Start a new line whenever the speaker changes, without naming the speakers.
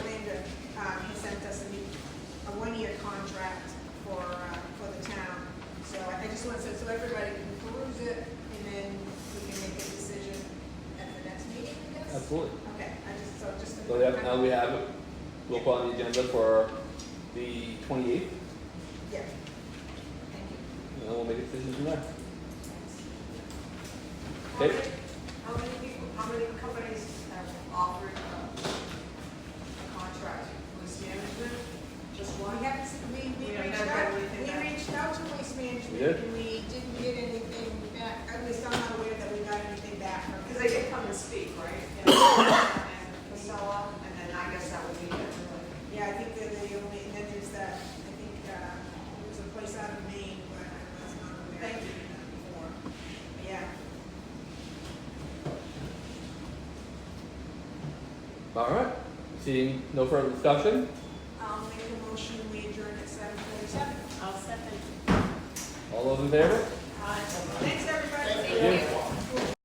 um, uh, so everybody can peruse it, and then we can make a decision at the next meeting, I guess?
Absolutely.
Okay, I just, so just. a
So we have, now we have it, we'll put on the agenda for the twenty-eighth,
Yeah. Thank you.
and then we'll make a decision from there.
How
Okay.
many how many people, how many companies have offered uh, a contract for waste management? Just
We
one?
haven't, s- we, we
We don't
reached
know
out,
whether we can
we
back-
reached out to waste
We
management,
did?
and we didn't get anything back, at least I'm not aware that we got anything back from.
Because they did come and speak, right? And Casella, and then I guess that would be it.
Yeah, I think that the only, and then there's that, I think, uh, it was a place out of Maine where I was not aware
Thank
of
you.
that before. But Yeah,
All right, seeing no further discussion,
I'll make a motion, we adjourn at seven forty-seven.
I'll second.
all those in favor?
Thanks, everybody.
Thank you.